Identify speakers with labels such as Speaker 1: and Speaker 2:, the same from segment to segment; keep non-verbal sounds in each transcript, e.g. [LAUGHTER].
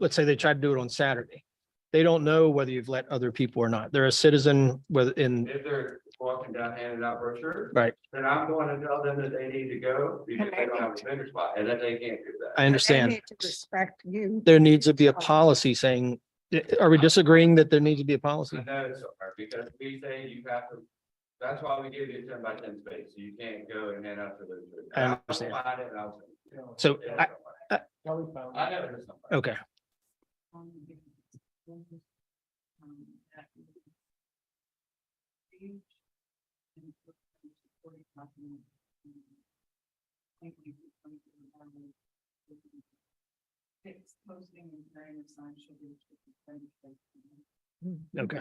Speaker 1: let's say they try to do it on Saturday. They don't know whether you've let other people or not. They're a citizen within,
Speaker 2: If they're walking down handing out brochures.
Speaker 1: Right.
Speaker 2: Then I'm going to tell them that they need to go because they don't have a vendor spot and that they can't do that.
Speaker 1: I understand.
Speaker 3: need to Respect you.
Speaker 1: There needs to be a policy saying, eh, are we disagreeing that there needs to be a policy?
Speaker 2: I know it's hard because we say you have to, that's why we give you a ten by ten space. You can't go and hand out to those.
Speaker 1: I understand.
Speaker 2: I'll find it and I'll send it.
Speaker 1: So
Speaker 2: There's
Speaker 1: I-
Speaker 2: somebody.
Speaker 1: I-
Speaker 2: I know there's somebody.
Speaker 1: Okay, okay.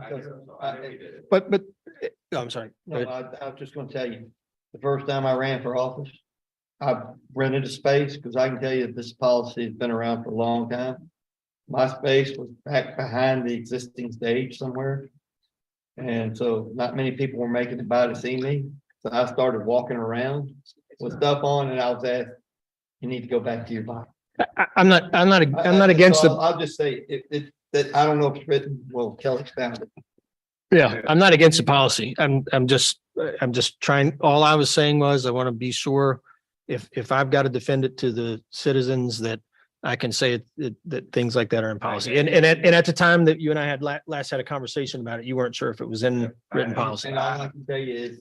Speaker 2: I know somebody. I know we did it.
Speaker 1: But, but, eh, oh, I'm sorry.
Speaker 4: No, I, I was just gonna tell you, the first time I ran for office, I rented a space, because I can tell you this policy has been around for a long time. My space was back behind the existing stage somewhere. And so not many people were making it by to see me, so I started walking around with stuff on and I was asked, you need to go back to your box.
Speaker 1: I, I'm not, I'm not,
Speaker 4: I-
Speaker 1: I'm
Speaker 4: I-
Speaker 1: not
Speaker 4: so
Speaker 1: against
Speaker 4: I'll-
Speaker 1: the,
Speaker 4: I'll just say, it, it, that, I don't know if it's written, well, Kelly's found it.
Speaker 1: yeah, I'm not against the policy. I'm, I'm just, I'm just trying, all I was saying was I want to be sure if, if I've got to defend it to the citizens that I can say it- that, that things like that are in policy. And, and at, and at the time that you and I had la- last had a conversation about it, you weren't sure if it was in written policy.
Speaker 4: And all I can tell you is,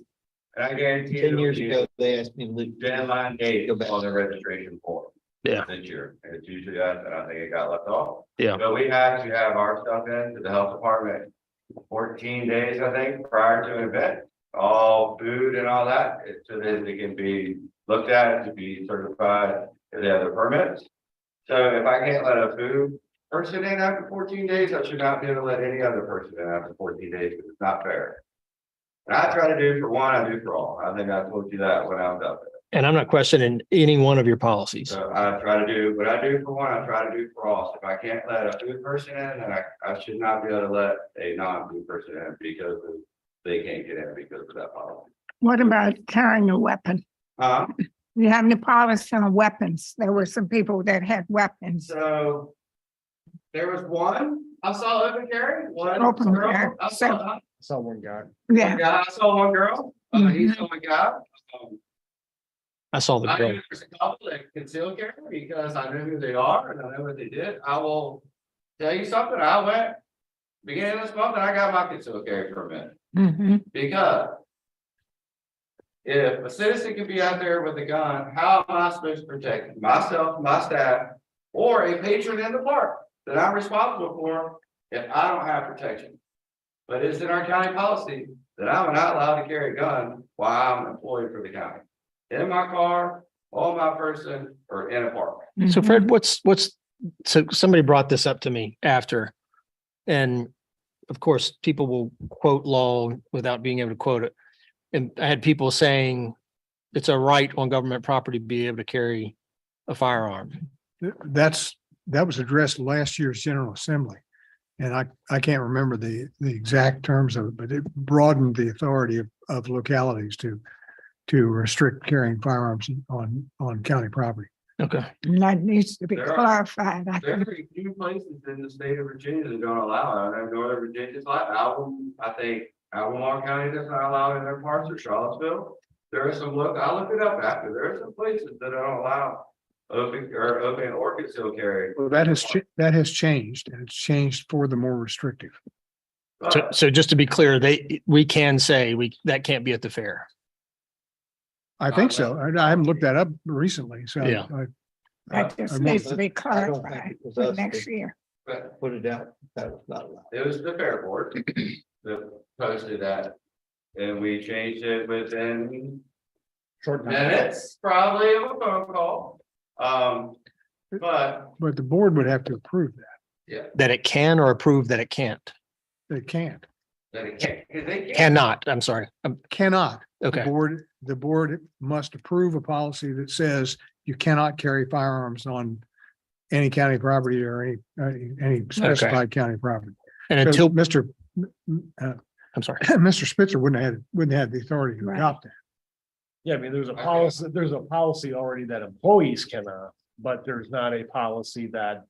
Speaker 2: And I guarantee.
Speaker 4: ten
Speaker 2: it'll
Speaker 4: years
Speaker 2: be-
Speaker 4: ago, they asked me to leave.
Speaker 2: deadline date
Speaker 4: Go back.
Speaker 2: on the registration form.
Speaker 1: Yeah.
Speaker 2: This year, and it's usually us, and I think it got left off.
Speaker 1: Yeah.
Speaker 2: But we had to have our stuff in to the health department fourteen days, I think, prior to an event. All food and all that, it- so that it can be looked at, to be certified, if they have the permits. So if I can't let a food person in after fourteen days, I should not be able to let any other person in after fourteen days, because it's not fair. And I try to do for one, I do for all. I think I told you that when I was up there.
Speaker 1: And I'm not questioning any one of your policies.
Speaker 2: So I try to do what I do for one, I try to do for all. So If I can't let a food person in, then I, I should not be able to let a non-food person in because of- they can't get in because of that policy.
Speaker 3: What about carrying a weapon?
Speaker 2: Uh,
Speaker 3: You have the policy on weapons. There were some people that had weapons.
Speaker 2: so there was one, I saw open carry, one
Speaker 3: Open
Speaker 2: girl,
Speaker 3: carry,
Speaker 2: I
Speaker 3: so-
Speaker 2: saw,
Speaker 4: Someone got.
Speaker 2: one
Speaker 3: Yeah,
Speaker 2: guy, I saw one girl, uh, he saw one guy. Um,
Speaker 3: Mm-hmm.
Speaker 1: I saw the
Speaker 2: I
Speaker 1: bill.
Speaker 2: knew there's a couple that conceal carry because I know who they are and I know what they did. I will tell you something, I went. Beginning of this month, and I got my concealed carry permit
Speaker 3: mhm,
Speaker 2: because. If a citizen can be out there with a gun, how am I supposed to protect myself, my staff, or a patron in the park that I'm responsible for if I don't have protection? But it's in our county policy that I'm not allowed to carry a gun while I'm employed for the county. In my car, on my person, or in a park.
Speaker 1: So
Speaker 3: mhm.
Speaker 1: Fred, what's, what's, so somebody brought this up to me after. And of course, people will quote law without being able to quote it. And I had people saying it's a right on government property to be able to carry a firearm.
Speaker 5: Th- That's, that was addressed last year's General Assembly. And I, I can't remember the, the exact terms of it, but it broadened the authority of, of localities to, to restrict carrying firearms on, on county property.
Speaker 1: Okay.
Speaker 3: And That needs to be
Speaker 2: There are-
Speaker 3: clarified. I
Speaker 2: There
Speaker 3: think.
Speaker 2: are a few places in the state of Virginia that don't allow it. I know Northern Virginia's like Albemarle, I think Albemarle County does not allow it in their parts or Charlottesville. There are some, look, I looked it up after. There are some places that don't allow open or open or concealed carry.
Speaker 5: Well, that has, cha- that has changed and it's changed for the more restrictive.
Speaker 1: So,
Speaker 2: But
Speaker 1: so just to be clear, they, we can say we, that can't be at the fair.
Speaker 5: I think so. I I haven't looked that up recently, so.
Speaker 1: Yeah.
Speaker 5: I-
Speaker 3: That just
Speaker 5: I'm-
Speaker 3: needs to be
Speaker 4: Uh, I don't think
Speaker 3: clarified
Speaker 4: it was
Speaker 3: for
Speaker 4: us
Speaker 3: next
Speaker 4: that
Speaker 3: year.
Speaker 2: but
Speaker 4: put it out. That was not allowed.
Speaker 2: it was the fair board that posted that. And we changed it within
Speaker 4: Short
Speaker 2: minutes, probably of a phone call. Um, but
Speaker 5: But the board would have to approve that.
Speaker 1: That it can or approve that it can't,
Speaker 5: They can't,
Speaker 2: they can't, they can't.
Speaker 1: cannot, I'm sorry. Um,
Speaker 5: cannot. The
Speaker 1: Okay,
Speaker 5: Board, the board must approve a policy that says you cannot carry firearms on any county property or any, any- any specified county property.
Speaker 1: and
Speaker 5: So
Speaker 1: until,
Speaker 5: Mr. M- m- [CLEARS THROAT] uh, [CLEARS THROAT]
Speaker 1: I'm sorry.
Speaker 5: Mr. Spitzer wouldn't have, wouldn't have the authority to
Speaker 3: Right.
Speaker 5: adopt that.
Speaker 6: Yeah, I mean, there's a
Speaker 2: Okay.
Speaker 6: uh, policy, there's a policy already that employees cannot, but there's not a policy that